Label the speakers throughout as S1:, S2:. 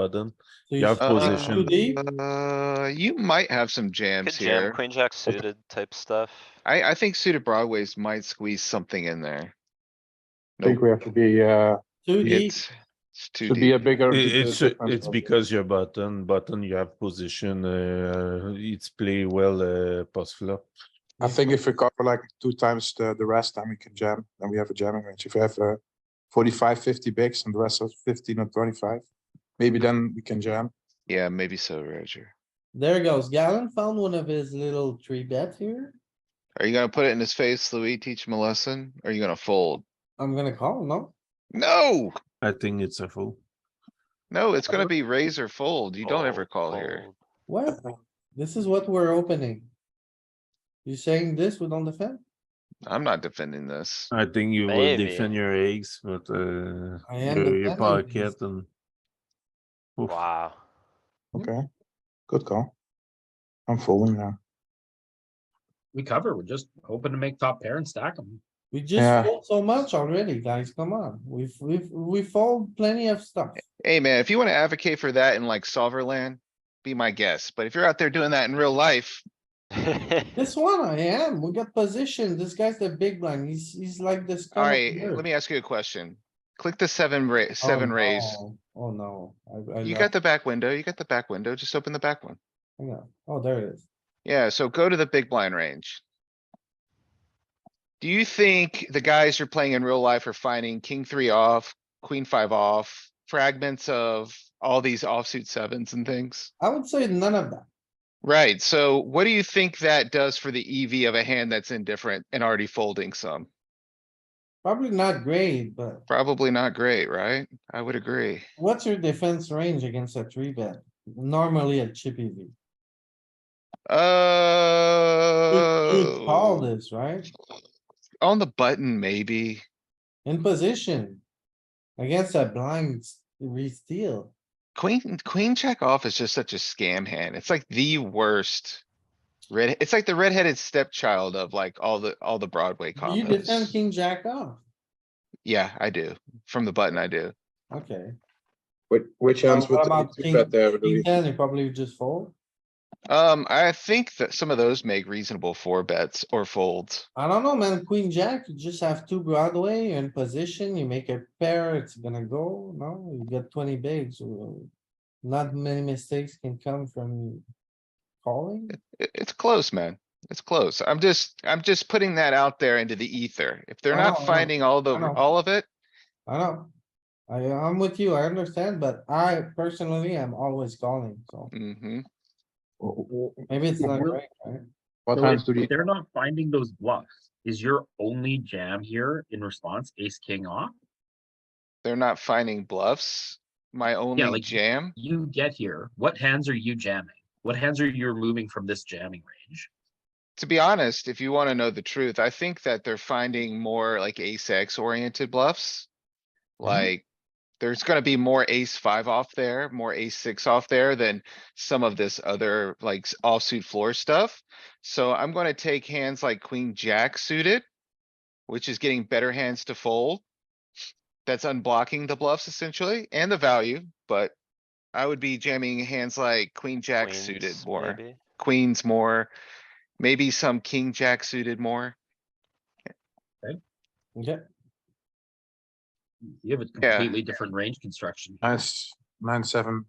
S1: button.
S2: So you
S1: You have
S2: should be
S1: position.
S2: too deep.
S3: Uh, you might have some
S4: Could
S3: jams
S4: jam
S3: here.
S4: queen jack suited type stuff.
S3: I, I think suited broadways might squeeze something in there.
S5: I think we have to be, uh,
S2: Too deep.
S3: It's, it's too
S5: to be a
S3: deep.
S5: bigger.
S1: I- It's,
S5: difference
S1: it's
S5: of-
S1: because your button, button you have position, uh, it's play well, uh, post flop.
S5: I think if we cover like two times the, the rest, then we can jam, then we have a jamming range. If we have, uh, 45, 50 bigs and the rest of fifteen or twenty-five, maybe
S2: Mm-hmm.
S5: then we can jam.
S3: Yeah, maybe so, Roger.
S2: There goes. Galen found one of his little three bets here.
S3: Are you gonna put it in his face, Louis? Teach him a lesson? Are you gonna fold?
S2: I'm gonna call, no?
S3: No,
S1: I think it's a fool.
S3: no, it's gonna be raise or fold. You don't ever call here.
S4: Fold.
S2: What? This is what we're opening. You saying this, we don't defend?
S3: I'm not defending this.
S1: I think you will
S4: Maybe.
S1: defend your eggs, but, uh,
S2: I am
S1: your- your
S2: defending
S1: pocket
S2: this.
S1: and. Oof.
S4: Oh, Wow,
S2: Mm-hmm.
S5: Okay, good call. I'm folding now.
S6: We cover, we're just hoping to make top pair and stack them.
S2: We
S5: Yeah.
S2: just fold so much already, guys. Come on. We've, we've, we fold plenty of stuff.
S3: Hey, man, if you wanna advocate for that in like Solverland, be my guest. But if you're out there doing that in real life,
S2: This one I am. We got position. This guy's the big blind. He's, he's like this. kind of
S3: alright,
S2: player.
S3: let me ask you a question. Click the seven ra-
S2: Oh,
S3: seven raise.
S2: no. Oh, no. I- I
S3: You
S2: know.
S3: got the back window, you got the back window, just open the back one.
S2: Hang on. Oh, there it is.
S3: Yeah, so go to the big blind range. Do you think the guys you're playing in real life are finding king three off, queen five off, fragments of all these offsuit sevens and things?
S2: I would say none of that.
S3: Right, so what do you think that does for the EV of a hand that's indifferent and already folding some?
S2: Probably not great, but
S3: Probably not great, right? I would agree.
S2: what's your defense range against a three bet? Normally a chippy V. You call
S3: Oh.
S2: this, right?
S3: On the button, maybe.
S2: In position. Against a blind s- re-steal.
S3: Queen, queen check off is just such a scam hand. It's like the worst. Red, it's like the redheaded stepchild of like all the, all the Broadway
S2: Do You defend
S3: combos.
S2: king jack off.
S3: Yeah, I do. From the button, I do.
S2: Okay.
S5: Which, which hands
S2: So what
S5: would
S2: about
S5: you
S2: king-
S5: bet there, Louis?
S2: King ten, you probably just fold.
S3: Um, I think that some of those make reasonable four bets or folds.
S2: I don't know, man. Queen jack, you just have two Broadway in position. You make a pair, it's gonna go. No, you got twenty bigs. Well, Not many mistakes can come from calling.
S3: It- it's close, man. It's close. I'm just, I'm just putting that out there into the ether. If they're
S2: I know, I
S3: not
S2: know,
S3: finding all the,
S2: I know.
S3: all of it,
S2: I know. I, I'm with you. I understand, but I personally am always calling, so
S3: hmm
S2: maybe it's not right, right?
S5: What
S6: So
S5: hands
S6: if-
S5: do you,
S6: if They're not finding those bluffs. Is your only jam here in response ace king off?
S3: they're not finding bluffs. My only
S6: like-
S3: jam,
S6: You get here, what hands are you jamming? What hands are you removing from this jamming range?
S3: to be honest, if you wanna know the truth, I think that they're finding more like ace X oriented bluffs.
S4: Mm-hmm.
S3: Like, there's gonna be more ace five off there, more ace six off there than some of this other like s- offsuit floor stuff. So I'm gonna take hands like queen jack suited, which is getting better hands to fold. That's unblocking the bluffs essentially and the value, but I would be jamming hands like queen jack suited
S4: queens,
S3: more
S4: maybe?
S3: queens more, maybe some king jack suited more.
S2: Okay,
S6: You have a
S3: Yeah.
S6: completely different range construction.
S5: nice, nine, seven,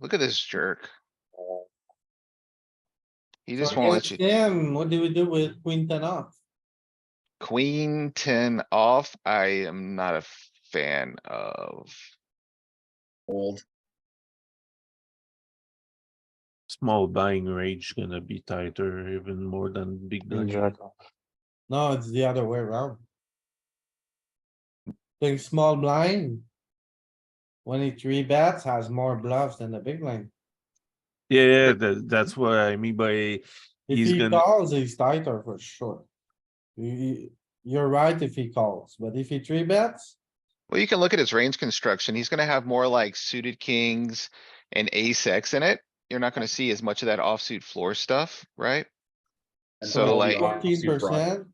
S3: Look at this jerk. He
S2: so
S3: just won't let
S2: against
S3: you.
S2: Him, what do we do with queen ten off?
S3: Queen ten off, I am not a fan of.
S6: Old.
S1: Small buying range gonna be tighter even more than big
S5: queen,
S1: blind.
S5: jack.
S2: No, it's the other way around. Big small blind. When he three bets has more bluffs than the big line.
S1: Yeah, yeah, that, that's what I mean by,
S2: If
S1: He's
S2: he
S1: gonna-
S2: calls, he's tighter for sure. You- You, you're right if he calls, but if he three bets,
S3: Well, you can look at his range construction. He's gonna have more like suited kings and ace X in it. You're not gonna see as much of that offsuit floor stuff, right? So like,
S2: fourteen percent,